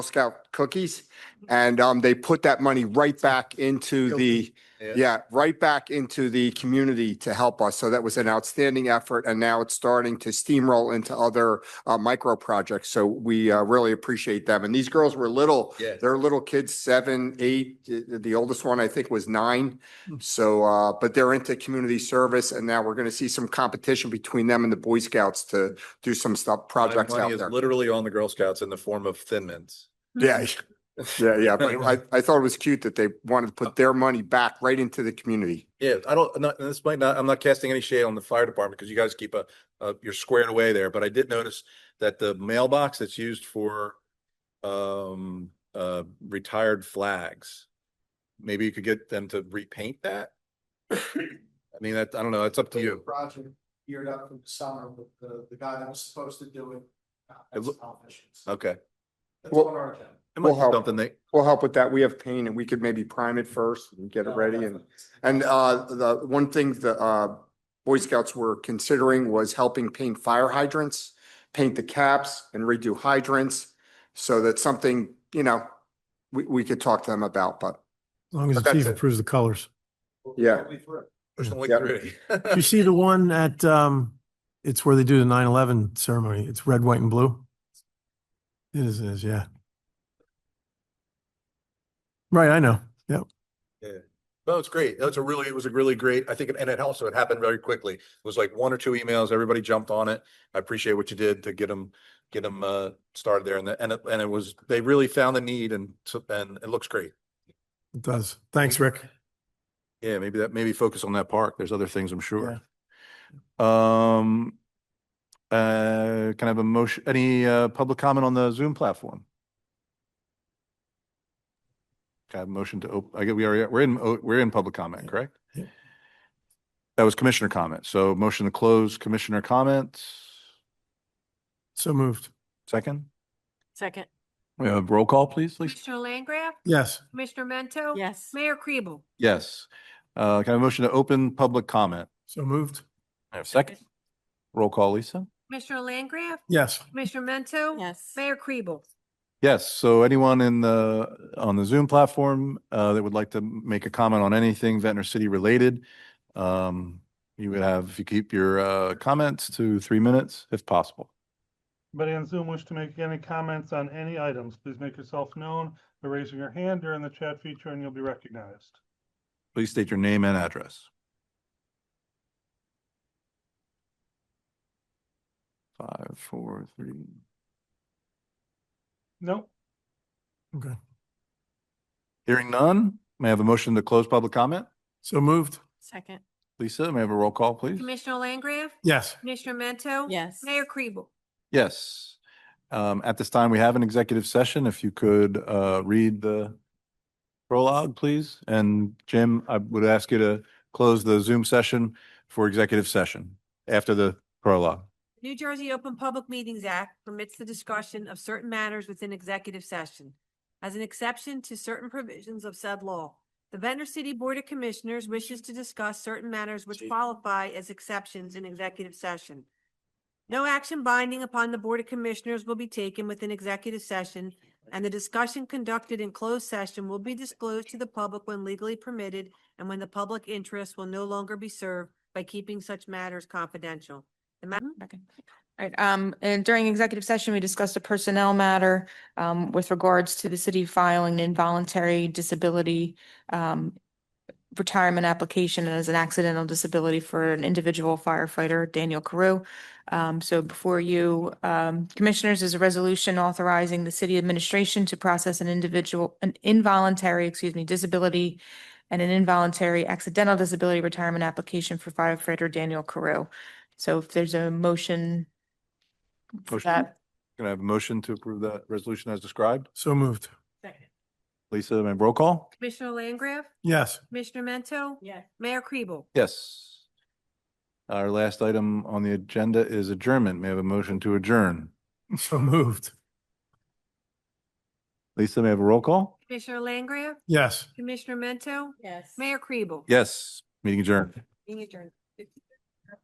Scout cookies. And um, they put that money right back into the, Yeah. yeah, right back into the community to help us. So that was an outstanding effort. And now it's starting to steamroll into other uh, micro projects. So we uh, really appreciate them. And these girls were little, Yeah. they're little kids, seven, eight. The the oldest one, I think, was nine. Hmm. So, uh, but they're into community service. And now we're going to see some competition between them and the Boy Scouts to do some stuff, My projects money out is there. Literally on the Girl Scouts in the form of Thin Mints. Yeah, yeah, yeah. But I, I thought it was cute that they wanted to put their money back right into the community. Yeah, I don't, not, and this might not, I'm not casting any shade on the fire department because you guys keep a, uh, you're squared away there, but I did notice that the mailbox that's used for um, uh, retired flags, maybe you could get them to repaint that? I mean, that, I don't know, it's up to the you. Project geared up for the summer with the, the guy that was supposed to do it. uh, It That's loo- Tom Fish's. uh, Okay. That's Well- on our agenda. It might We'll be help. something they, We'll help with that. We have paint and we could maybe prime it first and get it No, ready and, Oh, definitely. and, uh, the one thing the, uh, Boy Scouts were considering was helping paint fire hydrants, paint the caps and redo hydrants. So that's something, you know, we, we could talk to them about, but As long as But the that's chief it. approves the colors. We'll- yeah. we'll be through. push the link Yeah. through. You see the one at, um, it's where they do the nine eleven ceremony. It's red, white and blue. It is, it is, yeah. Right, I know. Yep. No, it's great. That's a really, it was a really great, I think, and it also, it happened very quickly. It was like one or two emails, everybody jumped on it. I appreciate what you did to get them, get them, uh, started there and, the- and, it- and it was, they really found the need and, so- and it looks great. It does. Thanks, Rick. Yeah, maybe that, maybe focus on that park. There's other things, I'm Yeah. sure. Um, uh, can I have a motion, any, uh, public comment on the Zoom platform? Can I have a motion to, op- I get, we are, we're in, o- we're in public comment, Yeah. correct? Yeah. That was commissioner comment. So motion to close commissioner comments. So moved. Second, Second. we have roll call, please, Lisa? Commissioner Langgraf? Yes. Commissioner Mento? Yes. Mayor Kribel? Yes. Uh, can I have a motion to open public comment? So moved. I have second. Roll call, Lisa? Commissioner Langgraf? Yes. Commissioner Mento? Yes. Mayor Kribel? Yes, so anyone in the, on the Zoom platform uh, that would like to make a comment on anything Ventnor City related, um, you would have, if you keep your uh, comments to three minutes if possible. Anybody on Zoom wish to make any comments on any items, please make yourself known by raising your hand or in the chat feature and you'll be recognized. Please state your name and address. Five, four, three. Nope, Okay. Hearing none, may I have a motion to close public comment? So moved. Second. Lisa, may I have a roll call, please? Commissioner Langgraf? Yes. Commissioner Mento? Yes. Mayor Kribel? Yes. Um, at this time, we have an executive session. If you could, uh, read the prologue, please. And Jim, I would ask you to close the Zoom session for executive session after the prologue. New Jersey Open Public Meetings Act permits the discussion of certain matters within executive session as an exception to certain provisions of said law. The Ventnor City Board of Commissioners wishes to discuss certain matters which qualify as exceptions in executive session. No action binding upon the Board of Commissioners will be taken within executive session, and the discussion conducted in closed session will be disclosed to the public when legally permitted and when the public interest will no longer be served by keeping such matters confidential. The ma- Okay. All right, um, and during executive session, we discussed a personnel matter, um, with regards to the city filing an involuntary disability, um, retirement application as an accidental disability for an individual firefighter, Daniel Carew. Um, so before you, um, commissioners is a resolution authorizing the city administration to process an individual, an involuntary, excuse me, disability and an involuntary accidental disability retirement application for firefighter Daniel Carew. So if there's a motion for Motion. that, Can I have a motion to approve that resolution as described? So moved. Lisa, may I have a roll call? Commissioner Langgraf? Yes. Commissioner Mento? Yes. Mayor Kribel? Yes. Our last item on the agenda is adjournment. May I have a motion to adjourn? So moved. Lisa, may I have a roll call? Commissioner Langgraf? Yes. Commissioner Mento? Yes. Mayor Kribel? Yes, meeting adjourned. Being adjourned.